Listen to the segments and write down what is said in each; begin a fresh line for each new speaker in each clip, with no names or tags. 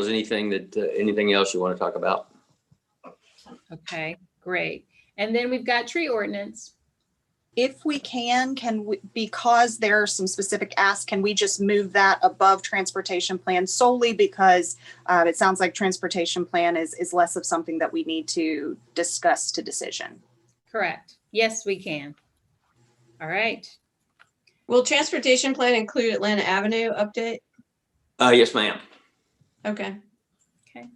Was anything that, uh, anything else you want to talk about?
Okay, great. And then we've got tree ordinance.
If we can, can, we- because there are some specific asks, can we just move that above transportation plan solely because uh, it sounds like transportation plan is, is less of something that we need to discuss to decision.
Correct. Yes, we can. All right.
Will transportation plan include Atlanta Avenue update?
Uh, yes, ma'am.
Okay.
Okay.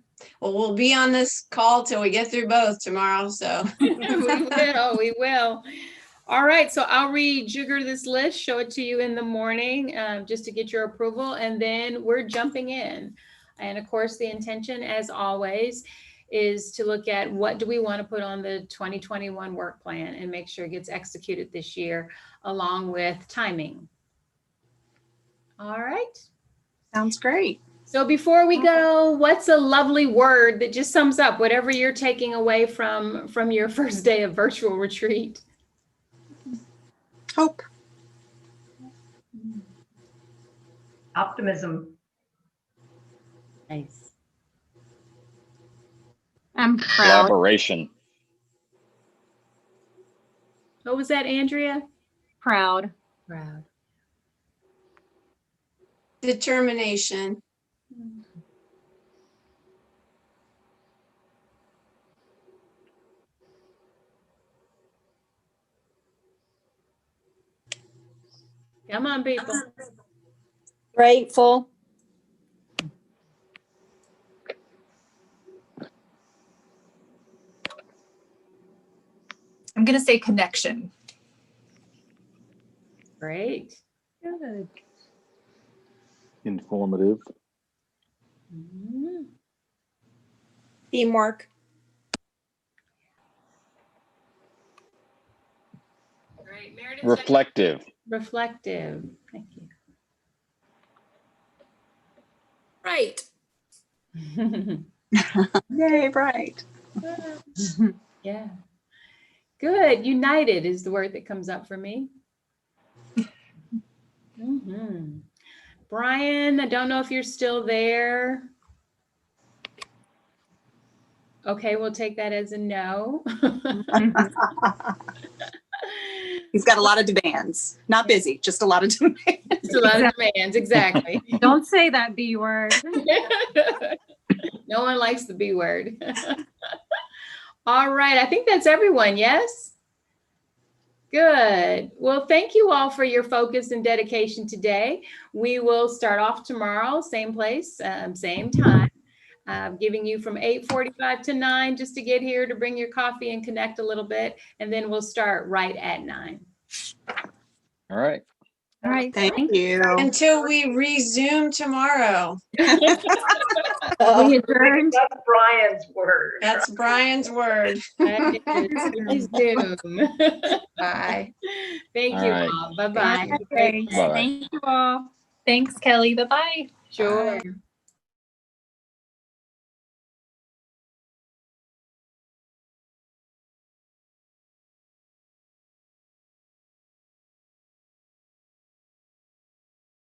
Well, we'll be on this call till we get through both tomorrow, so.
We will, we will. All right, so I'll rejigger this list, show it to you in the morning, um, just to get your approval, and then we're jumping in. And of course, the intention, as always, is to look at what do we want to put on the 2021 work plan and make sure it gets executed this year, along with timing. All right.
Sounds great.
So before we go, what's a lovely word that just sums up whatever you're taking away from from your first day of virtual retreat?
Hope.
Optimism.
Nice.
I'm proud.
Collaboration.
What was that, Andrea?
Proud.
Proud.
Determination.
Come on, people.
Grateful.
I'm going to say connection.
Great.
Good.
Informative.
Mhm.
Teamwork.
Great. Meredith,
Reflective.
reflective. Thank
Right.
you.
Yay, right.
yeah. Good. United is the word that comes up for me. Mhm. Brian, I don't know if you're still there. Okay, we'll take that as a no.
He's got a lot of demands. Not busy, just a lot of demands.
Just a lot of demands, exactly.
Don't say that B word.
No one likes the B word. All right, I think that's everyone, yes? Good. Well, thank you all for your focus and dedication today. We will start off tomorrow, same place, um, same time. Uh, giving you from 8:45 to 9 just to get here to bring your coffee and connect a little bit, and then we'll start right at 9.
All right.
All right.
Thank you.
Until we resume tomorrow.
We adjourned.
That's Brian's word.
That's Brian's word.
That is Zoom.
Bye.
Thank
All
you
right.
all. Bye-bye.
Thank you all. Thanks, Kelly. Bye-bye.
Sure.